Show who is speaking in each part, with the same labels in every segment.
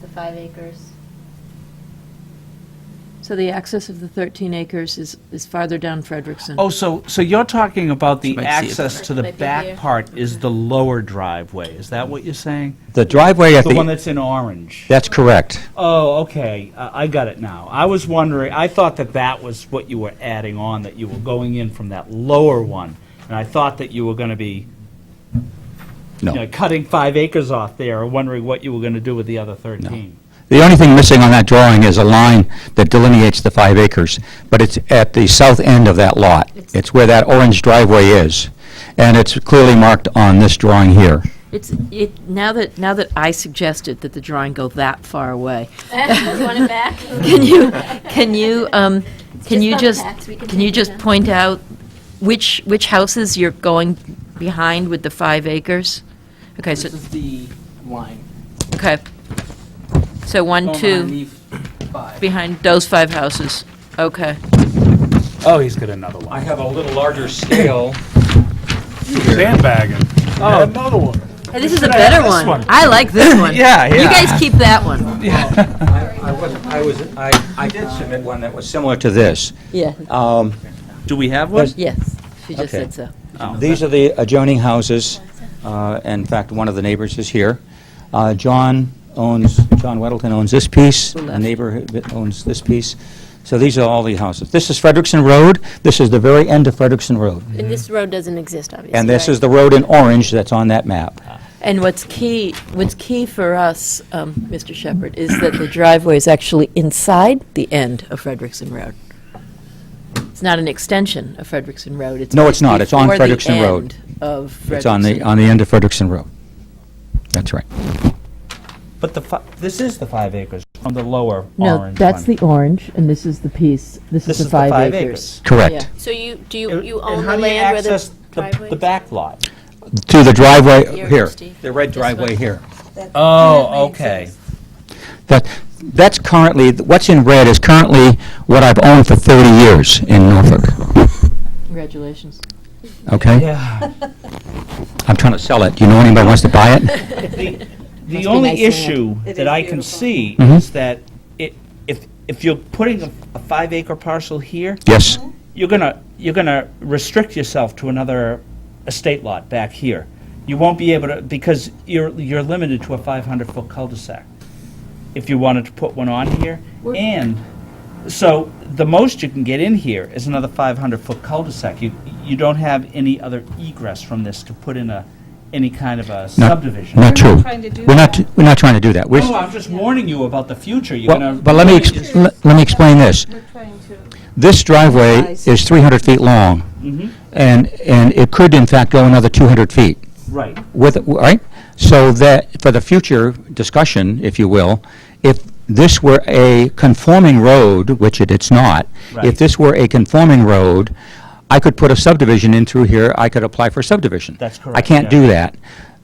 Speaker 1: the five acres.
Speaker 2: So the access of the 13 acres is, is farther down Frederickson.
Speaker 3: Oh, so, so you're talking about
Speaker 4: You
Speaker 3: the
Speaker 4: might see it.
Speaker 3: access to the
Speaker 1: Might be here.
Speaker 3: back part is the lower driveway, is that what you're saying?
Speaker 5: The driveway at
Speaker 3: The one
Speaker 5: the,
Speaker 3: that's in orange?
Speaker 5: that's correct.
Speaker 3: Oh, okay, I I got it now. I was wondering, I thought that that was what you were adding on, that you were going in from that lower one, and I thought that you were going to be, you know,
Speaker 5: No.
Speaker 3: cutting five acres off there, or wondering what you were going to do with the other 13.
Speaker 5: The only thing missing on that drawing is a line that delineates the five acres, but it's at the south end of that lot.
Speaker 1: It's-
Speaker 5: It's where that orange driveway is, and it's clearly marked on this drawing here.
Speaker 2: It's, it, now that, now that I suggested that the drawing go that far away,
Speaker 1: Want it back?
Speaker 2: can you, can you, um,
Speaker 1: just
Speaker 2: can you
Speaker 1: on
Speaker 2: just,
Speaker 1: tax, we can
Speaker 2: can you
Speaker 1: take it
Speaker 2: just
Speaker 1: down.
Speaker 2: point out which, which houses you're going behind with the five acres? Okay, so,
Speaker 6: This is the line.
Speaker 2: okay. So one,
Speaker 6: Going
Speaker 2: two,
Speaker 6: underneath five.
Speaker 2: behind those five houses, okay.
Speaker 3: Oh, he's got another one.
Speaker 7: I have a little larger scale.
Speaker 8: Sandbagging.
Speaker 3: Oh.
Speaker 8: Another one.
Speaker 2: Hey, This is a
Speaker 3: I have
Speaker 2: better
Speaker 3: this
Speaker 2: one.
Speaker 3: one?
Speaker 2: I like this one.
Speaker 3: Yeah,
Speaker 2: You
Speaker 3: yeah.
Speaker 2: guys keep that one.
Speaker 7: I I wasn't, I was, I, I did submit one that was similar
Speaker 5: Similar to this.
Speaker 2: Yeah,
Speaker 5: Um,
Speaker 3: Do we have one?
Speaker 2: yes, she just
Speaker 5: Okay.
Speaker 2: said so.
Speaker 5: These are the adjoining houses. Uh, In fact, one of the neighbors is here. Uh, John owns, John Weddleton owns this piece, the
Speaker 2: left.
Speaker 5: neighbor who owns this piece. So these are all the houses. This is Frederickson Road, this is the very end of Frederickson Road.
Speaker 1: And this road doesn't exist, obviously.
Speaker 5: And this
Speaker 1: right?
Speaker 5: is the road in orange that's on that map.
Speaker 2: And what's key, what's key for us, um, Mr. Shepherd, is that the driveway is actually inside the end of Frederickson Road. It's not an extension of Frederickson Road.
Speaker 5: No, it's not. It's on
Speaker 2: before the
Speaker 5: Frederickson Road.
Speaker 2: end Of Frederickson.
Speaker 5: It's on the, on the end of Frederickson Road. That's right.
Speaker 3: But the, fi- this is the five acres from the lower
Speaker 2: No,
Speaker 3: orange
Speaker 2: that's
Speaker 3: one.
Speaker 2: the orange, and this is the piece, this is the five acres.
Speaker 5: Correct.
Speaker 1: So you, do you,
Speaker 3: And-
Speaker 1: you own
Speaker 3: and how
Speaker 1: the
Speaker 3: do you
Speaker 1: land where
Speaker 3: access
Speaker 1: the
Speaker 3: the-
Speaker 1: driveway?
Speaker 3: The back lot.
Speaker 5: To the driveway
Speaker 1: Here,
Speaker 5: here,
Speaker 1: Steve.
Speaker 5: the red driveway here.
Speaker 3: Oh, okay.
Speaker 5: That, that's currently, what's in red is currently what I've owned for 30 years in Norfolk,
Speaker 2: Congratulations.
Speaker 5: okay?
Speaker 3: Yeah.
Speaker 5: I'm trying to sell it. Do you know anybody wants to buy it?
Speaker 3: The the
Speaker 2: be nice
Speaker 3: only
Speaker 2: land.
Speaker 3: issue that I can see
Speaker 2: Mm-hmm.
Speaker 5: Mhm.
Speaker 3: is that it, if, if you're putting a a five acre parcel here,
Speaker 5: Yes.
Speaker 3: you're gonna, you're gonna restrict yourself to another estate lot back here. You won't be able to, because you're, you're limited to a 500-foot cul-de-sac if you wanted to put one on here. And, so, the most you can get in here is another 500-foot cul-de-sac. You, you don't have any other egress from this to put in a, any kind of a
Speaker 5: Not-
Speaker 3: subdivision.
Speaker 5: Not true.
Speaker 9: trying to do
Speaker 5: We're not,
Speaker 9: that.
Speaker 5: we're not trying to do that. We're,
Speaker 3: No, I'm just warning you about the future. You're
Speaker 5: well,
Speaker 3: gonna.
Speaker 5: but let me, ex- le- let me explain this.
Speaker 9: We're trying to.
Speaker 5: This driveway
Speaker 9: Size.
Speaker 5: is 300 feet long,
Speaker 3: Mhm,
Speaker 5: and, and it could in fact go another 200 feet.
Speaker 3: Right.
Speaker 5: with, right? So that, for the future discussion, if you will, if this were a conforming road, which it, it's not,
Speaker 3: Right.
Speaker 5: if this were a conforming road, I could put a subdivision in through here, I could apply for subdivision.
Speaker 3: That's
Speaker 5: I
Speaker 3: correct,
Speaker 5: can't
Speaker 3: yeah.
Speaker 5: do that.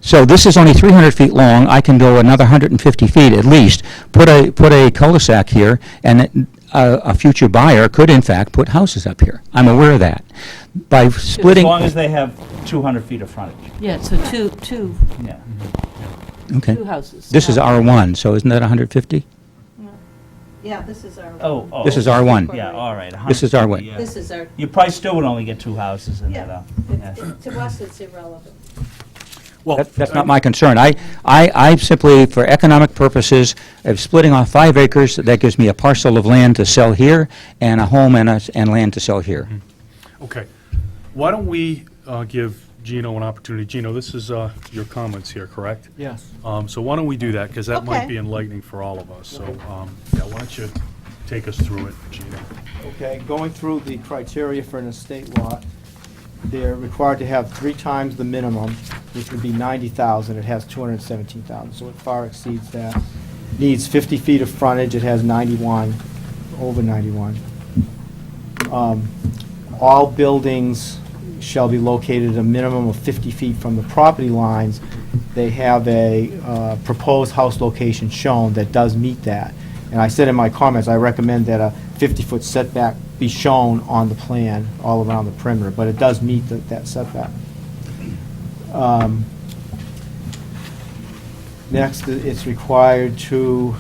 Speaker 5: So this is only 300 feet long, I can go another 150 feet at least, put a, put a cul-de-sac here, and it- a, a future buyer could in fact put houses up here. I'm aware of that. By
Speaker 3: As
Speaker 5: splitting,
Speaker 3: long as they have 200 feet of frontage,
Speaker 2: Yeah, so two, two,
Speaker 3: yeah.
Speaker 5: okay,
Speaker 2: two houses. Um,
Speaker 5: this is R1, so isn't that 150?
Speaker 9: Yeah, this is our.
Speaker 3: Oh, oh.
Speaker 5: This is R1.
Speaker 3: Yeah, all right. a
Speaker 5: This is
Speaker 3: 150,
Speaker 5: our way.
Speaker 3: yeah.
Speaker 9: This is our.
Speaker 3: You probably still would only get two houses in
Speaker 9: Yeah.
Speaker 3: there, though.
Speaker 9: it-
Speaker 3: Yeah.
Speaker 9: it- To us, it's irrelevant.
Speaker 8: Well,
Speaker 5: That- That's not my concern. I, I, I simply, for economic purposes, of splitting off five acres, that gives me a parcel of land to sell here, and a home and, a- and land to sell here.
Speaker 8: Okay. Why don't we uh, give Gino an opportunity? Gino, this is uh, your comments here, correct?
Speaker 6: Yes.
Speaker 8: Um, So why don't we do that, because that
Speaker 9: Okay.
Speaker 8: might be enlightening for all of us. So, um, yeah, why don't you take us through it, Gino?
Speaker 6: Okay, going through the criteria for an estate lot, they're required to have three times the minimum, which would be 90,000. It has 217,000, so it far exceeds that. Needs 50 feet of frontage, it has 91, over 91. Um, All buildings shall be located a minimum of 50 feet from the property lines. They have a uh, proposed house location shown that does meet that. And I said in my comments, I recommend that a 50-foot setback be shown on the plan all around the perimeter, but it does meet that that setback. Um, Next, it's required to